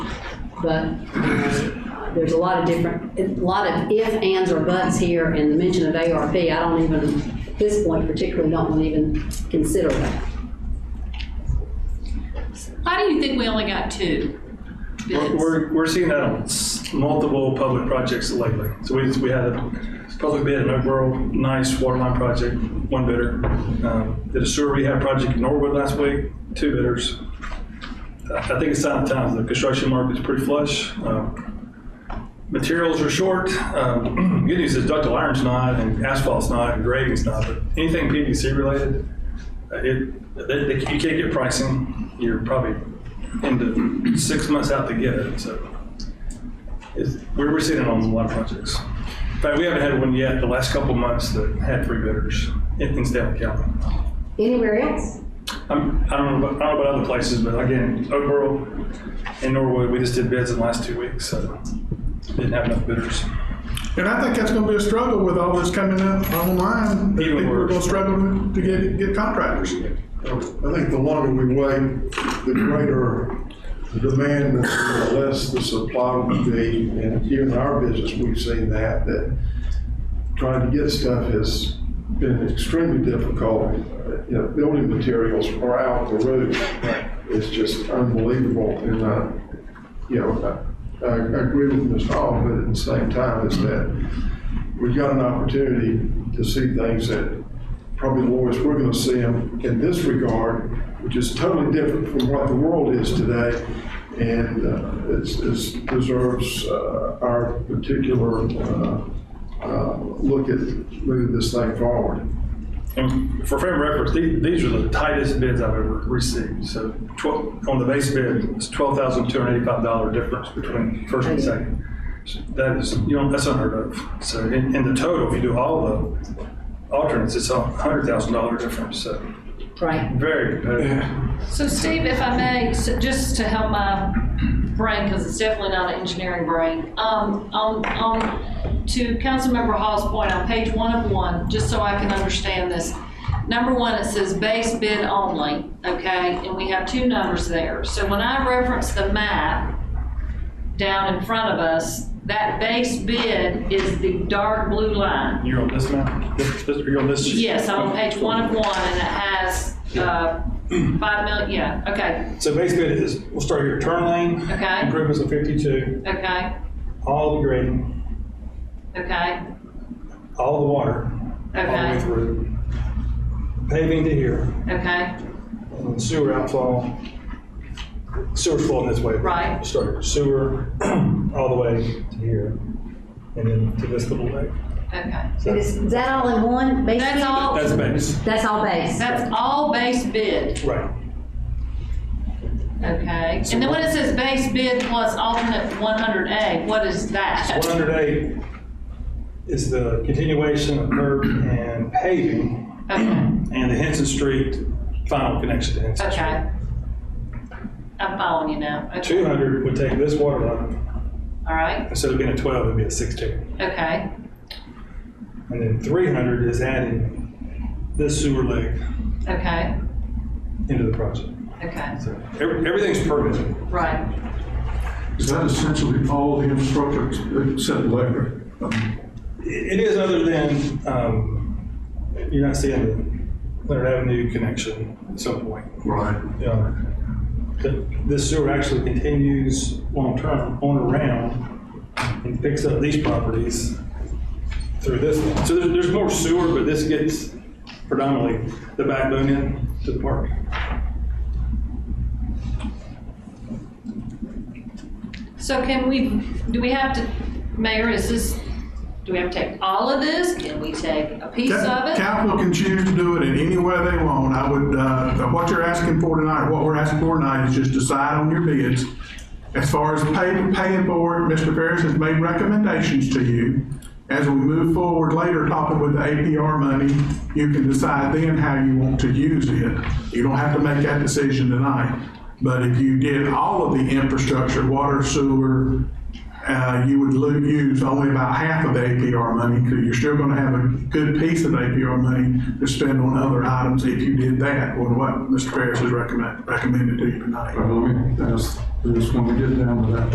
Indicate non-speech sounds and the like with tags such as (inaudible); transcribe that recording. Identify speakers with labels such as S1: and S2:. S1: but uh, there's a lot of different, a lot of if, ands, or buts here, and the mention of ARP, I don't even, at this point particularly, don't want to even consider that.
S2: Why do you think we only got two
S3: We're-
S2: bids?
S3: We're, we're seeing that on s- multiple public projects lately. So we, we had a public bid in Oakboro, nice water line project, one bidder. Um, Did a sewer rehab project in Norwood last week, two bidders. I I think it's time, times, the construction market's pretty flush. Um, Materials are short. Um, (clears throat) Good news is ductile iron's not, and asphalt's not, and grading's not, but anything PVC related, uh, it, they, they, you can't get pricing. You're probably into six months out to get it, so. It's, we're, we're sitting on a lot of projects. In fact, we haven't had one yet the last couple of months that had three bidders in, in Stanley County.
S1: Anywhere else?
S3: I'm, I don't know about, I don't know about other places, but again, Oakboro and Norwood, we just did bids in the last two weeks, so didn't have enough bidders.
S4: And I think that's gonna be a struggle with all this coming up online. I
S3: Even
S4: think we're
S3: worse.
S4: gonna struggle to get, get contractors.
S5: I think the longer we wait, the greater the demand, and the less the supply will be. And here in our business, we've seen that, that trying to get stuff has been extremely difficult. You know, building materials are out the roof. It's just unbelievable. And, uh, you know, I, I agree with Ms. Hall, but at the same time, it's that we've got an opportunity to see things that probably the lowest we're gonna see them in this regard, which is totally different from what the world is today. And uh, it's, it's deserves uh, our particular, uh, uh, look at moving this thing forward.
S3: And for frame of reference, the- these are the tightest bids I've ever received. So 12, on the base bid, it's $12,285 difference between first and second. So That is, you know, that's unheard of. So in, in the total, if you do all the alternates, it's a $100,000 difference, so
S1: Right.
S3: very competitive.
S2: So Steve, if I may, s- just to help my brain, because it's definitely not an engineering brain, um, on, on, to Councilmember Hall's point, on page one of one, just so I can understand this. Number one, it says base bid only, okay, and we have two numbers there. So when I reference the map, down in front of us, that base bid is the dark blue line.
S3: You're on this map? This- this- You're on this? sheet?
S2: Yes, I'm on page one of one, and it has uh, five million, yeah, okay,
S6: So base bid is, we'll start your turn lane.
S2: Okay.
S6: Improvements of fifty-two,
S2: okay,
S6: all the grading,
S2: okay,
S6: all the water, all the way
S2: okay,
S6: through. Paving to here,
S2: okay,
S6: and sewer outflow, sewer's flowing this way.
S2: Right.
S6: Start your sewer (clears throat) all the way to here, and then to this little lake.
S2: okay.
S6: So
S7: And is is that all in one, basically?
S2: That's all,
S6: That's base,
S7: That's all base?
S2: that's all base bid,
S6: right.
S2: okay? And then when it says base bid plus alternate 100A, what is that?
S6: One hundred eight is the continuation of curb and paving,
S2: Okay,
S6: and the Henson Street final connection to Henson.
S2: okay. I'm following you now. Okay,
S6: Two hundred would take this water line,
S2: all right,
S6: instead of being a twelve, it'd be a sixteen.
S2: okay,
S6: And then three hundred is adding this sewer leg
S2: okay,
S6: into the project.
S2: okay,
S6: So every- everything's permitted.
S2: right.
S8: Is that essentially all the infrastructure except library?
S6: It it is other than, um, you're not seeing the Leonard Avenue connection at some point.
S8: Right.
S6: Yeah. The- This sewer actually continues long-term on around and picks up these properties through this one. So there's, there's more sewer, but this gets predominantly the backbone in to the park.
S2: So can we, do we have to, Mayor, is this, do we have to take all of this? Can we take a piece of
S4: Cap-
S2: it?
S4: Capital can choose to do it in any way they want. I would, uh, what you're asking for tonight, what we're asking for tonight is just decide on your bids. As far as paying, paying for it, Mr. Ferris has made recommendations to you. As we move forward later, talking with the APR money, you can decide then how you want to use it. You don't have to make that decision tonight. But if you did all of the infrastructure, water, sewer, uh, you would lo- use only about half of the APR money, because you're still gonna have a good piece of APR money to spend on other items if you did that, or what Mr. Ferris has recommend, recommended to you tonight.
S8: Let me ask, I just want to get down to that